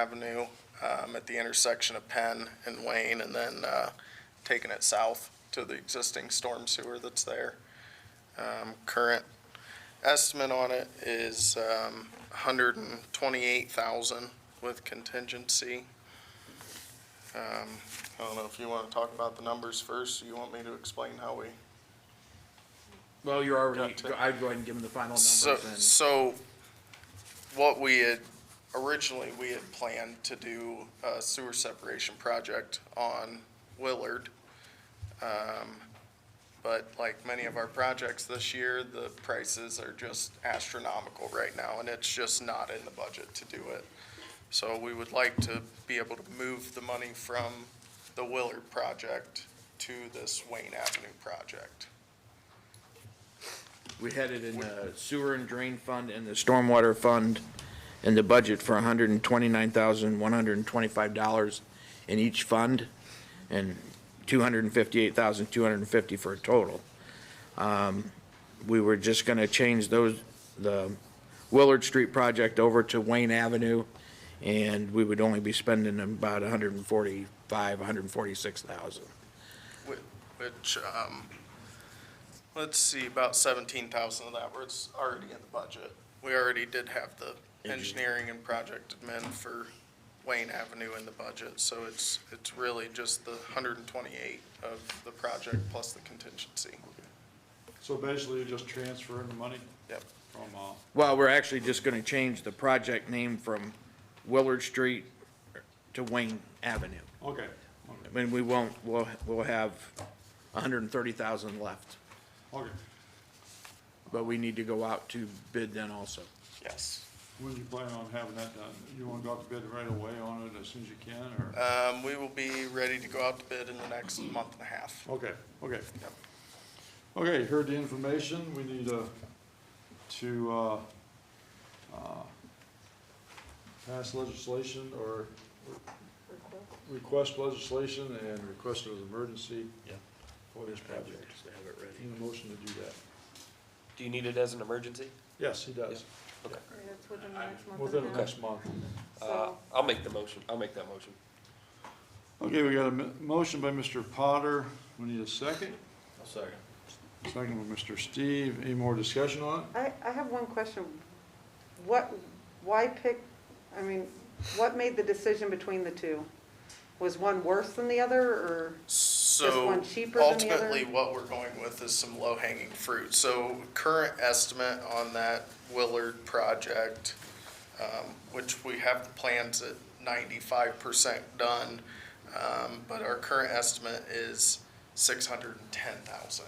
Avenue, um, at the intersection of Penn and Wayne, and then, uh, taking it south to the existing storm sewer that's there. Um, current estimate on it is, um, hundred and twenty-eight thousand with contingency. Um, I don't know if you wanna talk about the numbers first, or you want me to explain how we Well, you're already, Got to- I'd go ahead and give them the final numbers So, and, so what we had, originally, we had planned to do a sewer separation project on Willard. Um, But like many of our projects this year, the prices are just astronomical right now, and it's just not in the budget to do it. So we would like to be able to move the money from the Willard project to this Wayne Avenue project. we had it in the sewer and drain fund and the stormwater fund and the budget for hundred and twenty-nine thousand, one hundred and twenty-five dollars in each fund and two hundred and fifty-eight thousand, two hundred and fifty for a total. Um, We were just gonna change those, the Willard Street project over to Wayne Avenue and we would only be spending about a hundred and forty-five, hundred and forty-six thousand. which, um, let's see, about seventeen thousand of that was already in the budget. We already did have the engineering and project admin for Wayne Avenue in the budget, so it's, it's really just the hundred and twenty-eight of the project plus the contingency. So basically, you're just transferring the money Yep. from, uh, Well, we're actually just gonna change the project name from Willard Street to Wayne Avenue. okay, I okay, mean, we won't, we'll, we'll have hundred and thirty thousand left, okay. but we need to go out to bid then also. Yes. When you plan on having that done? You wanna go out to bid right away on it as soon as you can, or? Um, we will be ready to go out to bid in the next month and a half. Okay, okay. Yep. Okay, you heard the information, we need, uh, to, uh, uh, pass legislation or request legislation and request it as emergency Yeah. for this project. Need a motion to do that. Do you need it as an emergency? Yes, he does, That's within the next month within and the a half. next month. Uh, So, I'll make the motion, I'll make that motion. Okay, we got a m- motion by Mr. Potter. We need a second. I'll second. Second by Mr. Steve. Any more discussion on it? Uh, I, I have one question. What, why pick, I mean, what made the decision between the two? Was one worse than the other, or? So one cheaper than the other? ultimately, what we're going with is some low-hanging fruit. So current estimate on that Willard project, um, which we have the plans at ninety-five percent done, um, but our current estimate is six hundred and ten thousand,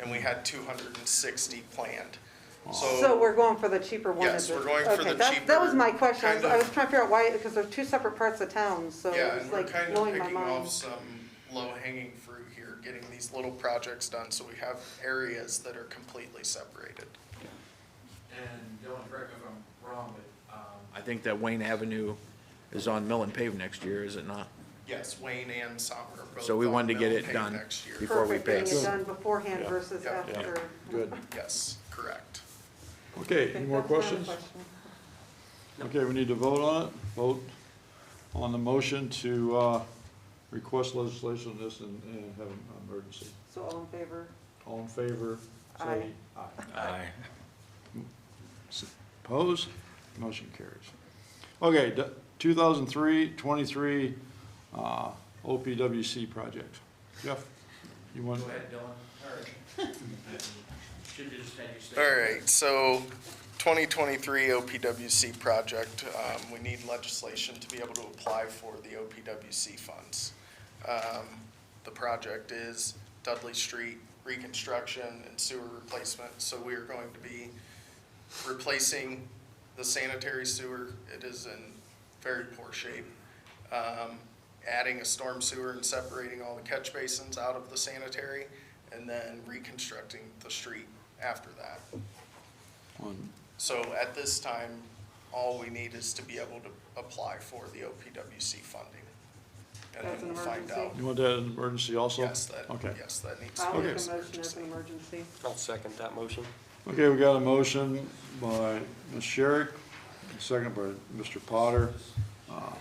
and we had two hundred and sixty planned. So So, we're going for the cheaper one? Yes, is it? we're going for Okay, the that- That was cheaper my question. I was- kind I of- was trying to figure out why, because they're two separate parts of town, so yeah, it was and we're like kind of blowing my picking off mind. some low-hanging fruit here, getting these little projects done, so we have areas that are completely separated. And Dylan, correct me if I'm wrong, but, um, I think that Wayne Avenue is on Mill and Pave next year, is it not? Yes, Wayne and Sommer are both. So we on wanted to get mill it pay done Next year, before we Perfect, getting pass. it done beforehand Yeah. versus Yeah. Yeah. after. Good. yes, correct. Okay, any more That's my other questions? question. Okay, we need to vote on it. Vote on the motion to, uh, request legislation on this and, and have an emergency. So all in favor? All in favor, say Aye. aye. Opposed? Motion carries. Okay, d- 2003-23 uh, OPWC project. Jeff, you want? go ahead, Dylan. All right. Should have just had you say. All right, so 2023 OPWC project, um, we need legislation to be able to apply for the OPWC funds. Um, The project is Dudley Street reconstruction and sewer replacement, so we are going to be replacing the sanitary sewer. It is in very poor shape. Um, Adding a storm sewer and separating all the catch basins out of the sanitary, and then reconstructing the street after that. One. So at this time, all we need is to be able to apply for the OPWC funding. And That's then an we'll find out. emergency? You want that in emergency also? Yes, that, Okay. yes, that needs to I'll be. make a Okay. motion as an emergency. I'll second that motion. Okay, we got a motion by Ms. Sherrick, second by Mr. Potter. Uh, uh,